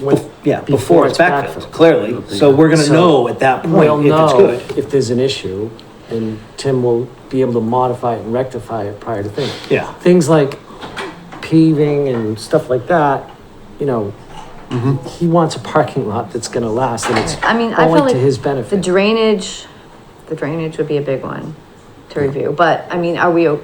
when, Yeah, before it's backfilled, clearly. So we're gonna So- know at that we'll point if it's know good. if there's an issue, and Tim will be able to modify and rectify it prior to things. Yeah. Things like paving and stuff like that, you know, Mm-hmm. he wants a parking lot that's gonna last, and it's I mean, I only feel like to his the benefit. drainage, the drainage would be a big one to review, but I mean, are we, o-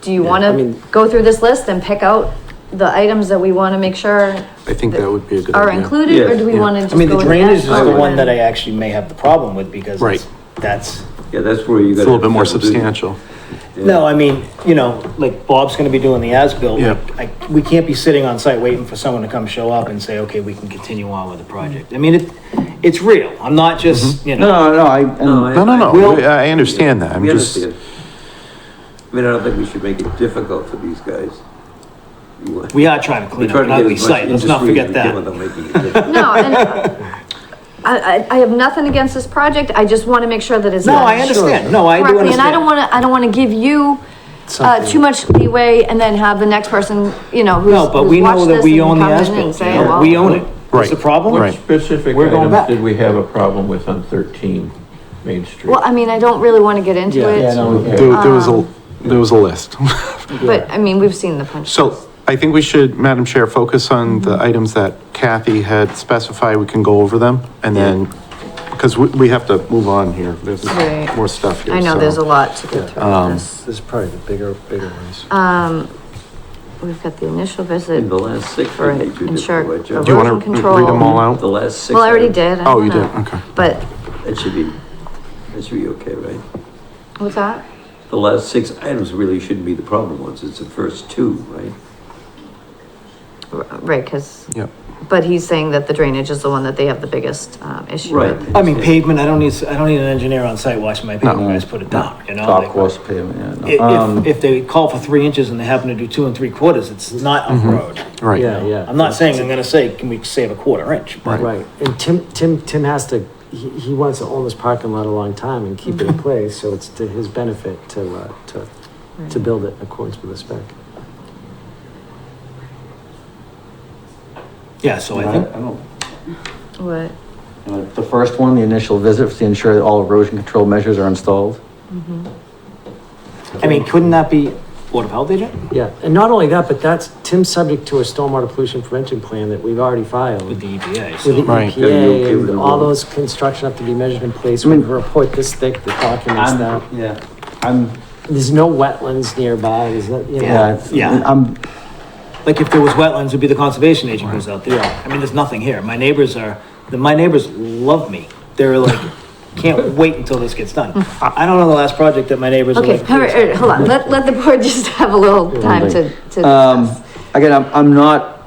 do you I wanna mean- go through this list and pick out the items that we wanna make sure I think that would be a good are idea. included, or Yes, do we yeah. wanna just I go mean, the with drainage is that? the one that I actually may have the problem with because it's, Right. that's, Yeah, that's where you It's got. a little bit more substantial. no, I mean, you know, like Bob's gonna be doing the as-built. Yeah. I, we can't be sitting on site waiting for someone to come show up and say, okay, we can continue on with the project. I mean, it, it's real. I'm not Mm-hmm. just, you know, No, no, I. No, no, no, We'll- we- I understand that, I'm We just, understand. I mean, I don't think we should make it difficult for these guys. You want- we are trying to clean up We're an trying to ugly get as much site. Let's not industry as forget we that. can without making it difficult. No, and I, I, I have nothing against this project, I just wanna make sure that it's. No, done I understand. No, I do correctly, And I understand. don't wanna, I don't wanna give you, uh, too much leeway and then have the next person, you know, who's, No, but who's we know watched that this and we own the come in and as-built. say, well. We own it. What's Right. the problem? Right. Specific We're going back. items did we have a problem with on 13 Main Street? Well, I mean, I don't really wanna get into it. there there was a, Um, there was a list. But, I mean, we've seen the punch. So I think we should, Madam Chair, focus on the Mm-hmm. items that Kathy had specified, we can go over them, and then, because we, we have to move on here, there's Right. more stuff here. I know so. um, there's a lot to go through with this. This is probably the bigger, bigger ones. We've got the initial visit. In the last six, For I think you did ensure quite a the job. Do you erosion want to control. read them all The out? last six. Well, I already items. did. I Oh, you don't know. did, okay. But, That should be, that should be okay, right? what's that? The last six items really shouldn't be the problem ones, it's the first two, right? R- Right, because, Yep. but he's saying that the drainage is the one that they have the biggest um, issue Right. with. I mean, pavement, I don't need, I don't need an engineer on site watching my pavement guys put it down, you know? Top Like, course payment, yeah. i- If, if they call for three inches and they happen to do two and three quarters, it's not a road. Right. Yeah, yeah. I'm not saying I'm gonna say, can we save a quarter inch? But Right, and Tim, Tim, Tim has to, he, he wants to own this parking lot a long time and keep it in place, so it's to his benefit to, uh, to, to build it in accordance with the spec. Yeah, so I I think, don't- What? uh, The first one, the initial visit, was to ensure that all erosion control measures are installed. I mean, couldn't that be Board of Health agent? Yeah, and not only that, but that's, Tim's subject to a stormwater pollution prevention plan that we've already filed. With With the E the EPA, so. Right. Yeah, you okay EPA, with and the all rule? those construction have to be measured in place, we have a report this thick that documents that. yeah, I'm, There's no wetlands nearby, is that, you yeah, know? it's- Yeah. I'm, Like if there was wetlands, it'd be the conservation agent goes out there. I mean, there's nothing here. My neighbors are, the- my neighbors love me. They're like, can't wait until this gets done. I I don't know the last project that my neighbors are Okay, like. all right, all right, hold on. Let, let the board just have a little time to, to Uh, um, discuss. again, I'm, I'm not,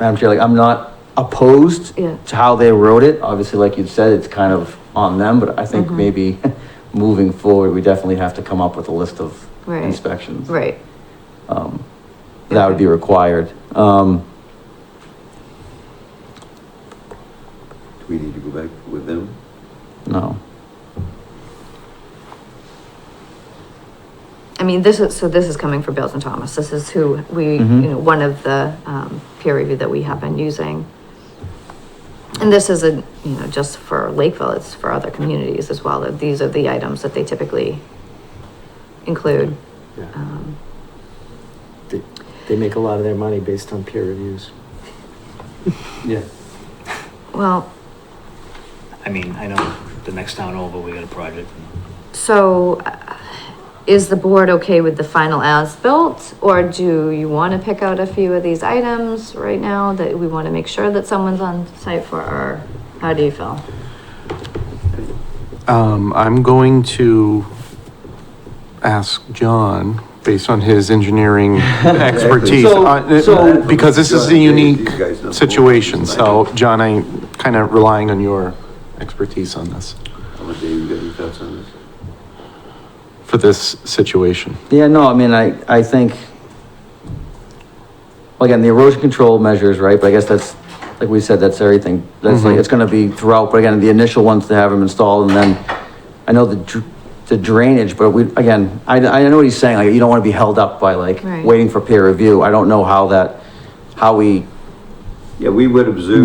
Madam Chair, like, I'm not opposed Yeah. to how they wrote it. Obviously, like you said, it's kind of on them, but I Mm-hmm. think maybe moving forward, we definitely have to come up with a list of Right. inspections. Right. that would be required. Um, Do we need to go back with them? no. I mean, this is, so this is coming from Bills and Thomas. This is who we, you know, one of the, um, peer review that we have been using. And this isn't, you know, just for Lakeville, it's for other communities as well. that These are the items that they typically include. Yeah. Um, They, they make a lot of their money based on peer reviews. Yeah. Well, I mean, I know the next town over, we got a project. so uh, is the board okay with the final as-built? Or do you want to pick out a few of these items right now that we want to make sure that someone's on site for? Or how do you feel? Um, I'm going to ask John, based on his engineering expertise, So- uh, so- because this is a John, you unique guys know. situation, so, John, I'm kind of relying on your expertise on this, How much Dave, you got any thoughts on this? for this situation. Yeah, no, I mean, I, I think, well, again, the erosion control measures, right, but I guess that's, like we said, that's everything. That's like, it's gonna be throughout, but again, the initial ones to have them installed, and then, I know the dr- the drainage, but we, again, I, I know what he's saying, like, you don't wanna be held up by like, Right. waiting for peer review. I don't know how that, how we Yeah, we would observe